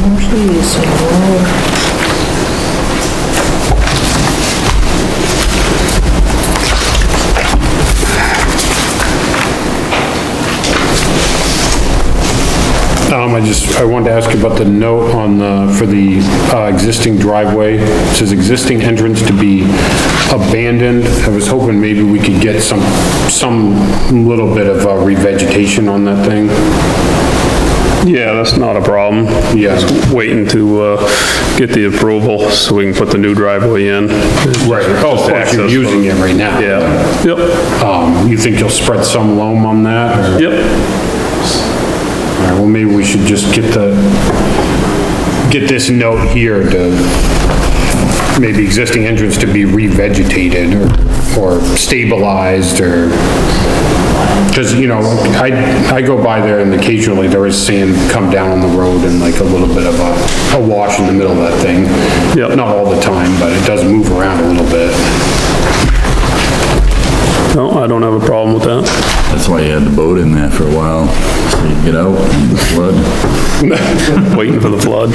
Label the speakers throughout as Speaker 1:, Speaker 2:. Speaker 1: Oh,
Speaker 2: Tom, Um, I just, I wanted to ask you about the note on the, for the uh, existing driveway. It says existing entrance to be abandoned. I was hoping maybe we could get some, some little bit of uh, revegetation on that thing.
Speaker 3: Yeah, that's not a problem.
Speaker 2: Yeah.
Speaker 3: Just Waiting to uh, get the approval so we can put the new driveway in.
Speaker 2: Right. Oh, of course, you're
Speaker 3: Access.
Speaker 2: using it right now.
Speaker 3: Yeah, yep,
Speaker 2: Um, you think you'll spread some loam on that? or-
Speaker 3: yep,
Speaker 2: All right, well, maybe we should just get the, get this note here to, maybe existing entrance to be revegetated or, or stabilized or, because, you know, I, I go by there and occasionally there is sand come down on the road and like a little bit of a, a wash in the middle of that thing.
Speaker 3: Yep.
Speaker 2: Not all the time, but it does move around a little bit.
Speaker 3: no, I don't have a problem with that.
Speaker 4: That's why you had the boat in there for a while, so you get out and the flood,
Speaker 3: Waiting for the flood.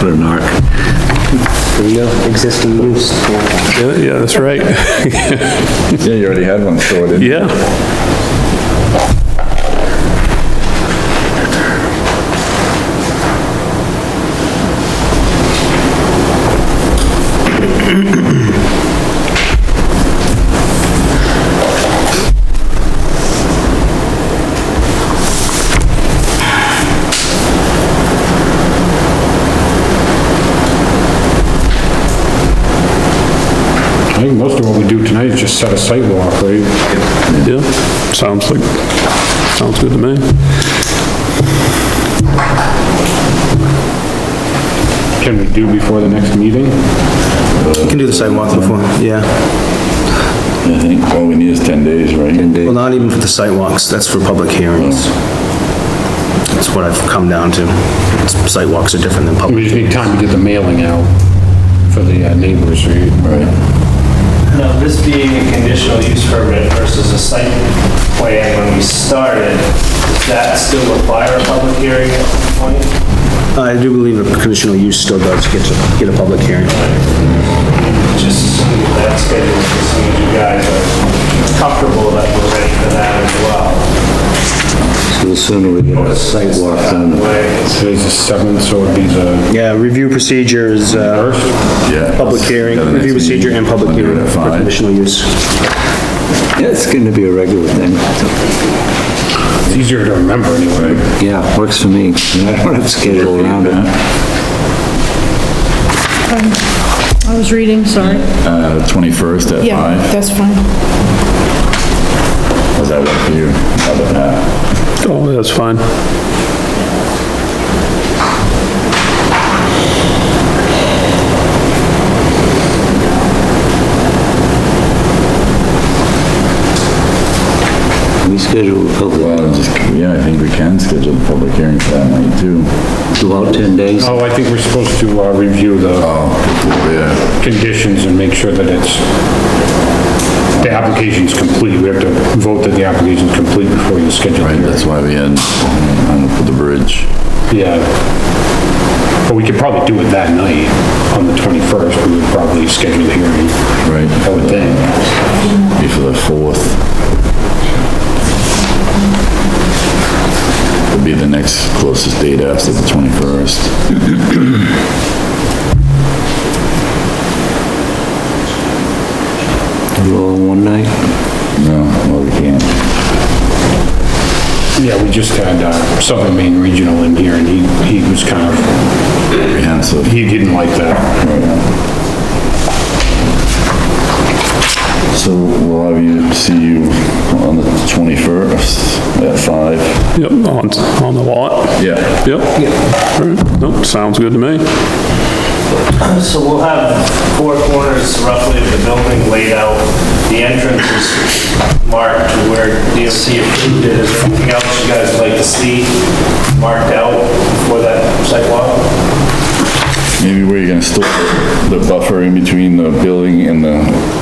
Speaker 4: put an arc.
Speaker 5: There you go, existing use. yeah.
Speaker 3: Yeah, yeah, that's right,
Speaker 4: Yeah, you already had one stored in.
Speaker 3: yeah.
Speaker 2: I think most of what we do tonight is just set a sidewalk, right?
Speaker 3: Yeah, sounds like, sounds good to me.
Speaker 2: Can we do before the next meeting?
Speaker 6: You can do the sidewalk before, yeah.
Speaker 4: I think all we need is 10 days, right? 10
Speaker 6: Well, not even for the sidewalks, that's for public hearings. That's what I've come down to. Sidewalks are different than
Speaker 2: We
Speaker 6: public.
Speaker 2: just need time to get the mailing out for the uh, neighbors, right?
Speaker 7: Now, this being a conditional use permit versus a site plan when we started, does that still require a public hearing at some point?
Speaker 6: I do believe a conditional use still does get to, get a public hearing.
Speaker 7: Just assuming that schedule, just so you guys are comfortable that we're ready for that as well.
Speaker 5: So the sooner we get a site walk done, the
Speaker 7: Like,
Speaker 2: Today's the seventh, so it'd be the
Speaker 6: Yeah, review procedure is, uh,
Speaker 2: first.
Speaker 4: Yeah.
Speaker 6: public hearing, review procedure and public
Speaker 4: Under
Speaker 6: hearing
Speaker 4: that
Speaker 6: for
Speaker 4: five.
Speaker 6: conditional use.
Speaker 5: Yeah, it's gonna be a regular thing.
Speaker 2: It's easier to remember anyway.
Speaker 5: Yeah, works for me. I don't have to schedule around it.
Speaker 1: I was reading, sorry.
Speaker 4: Uh, 21st at
Speaker 1: Yeah,
Speaker 4: 5,
Speaker 1: that's fine.
Speaker 4: does that work for you? How about that?
Speaker 3: Oh, that's fine.
Speaker 5: We schedule a
Speaker 4: Well,
Speaker 5: public,
Speaker 4: I'll just, yeah, I think we can schedule the public hearing for that night too.
Speaker 5: about 10 days.
Speaker 2: Oh, I think we're supposed to uh, review the
Speaker 4: Oh, yeah.
Speaker 2: conditions and make sure that it's, the application's complete. We have to vote that the application's complete before you schedule it.
Speaker 4: Right, that's why we had, um, for the bridge.
Speaker 2: Yeah. But we could probably do it that night, on the 21st, we would probably schedule the hearing.
Speaker 4: Right.
Speaker 2: I would think.
Speaker 4: Be for the 4th. Would be the next closest date after the 21st.
Speaker 5: You all one night?
Speaker 4: No, well, we can't.
Speaker 2: Yeah, we just had uh, Southern Maine Regional in here, and he, he was kind of,
Speaker 4: Comprehensive.
Speaker 2: he didn't like that.
Speaker 4: So we'll have you, see you on the 21st at 5.
Speaker 3: Yep, on, on the lot.
Speaker 4: Yeah.
Speaker 3: Yep. All right, nope, sounds good to me.
Speaker 7: So we'll have four corners roughly of the building laid out. The entrance is marked where DOC approved it. Is there anything else you guys would like to see marked out for that sidewalk?
Speaker 4: Maybe where you're gonna store the buffer in between the building and the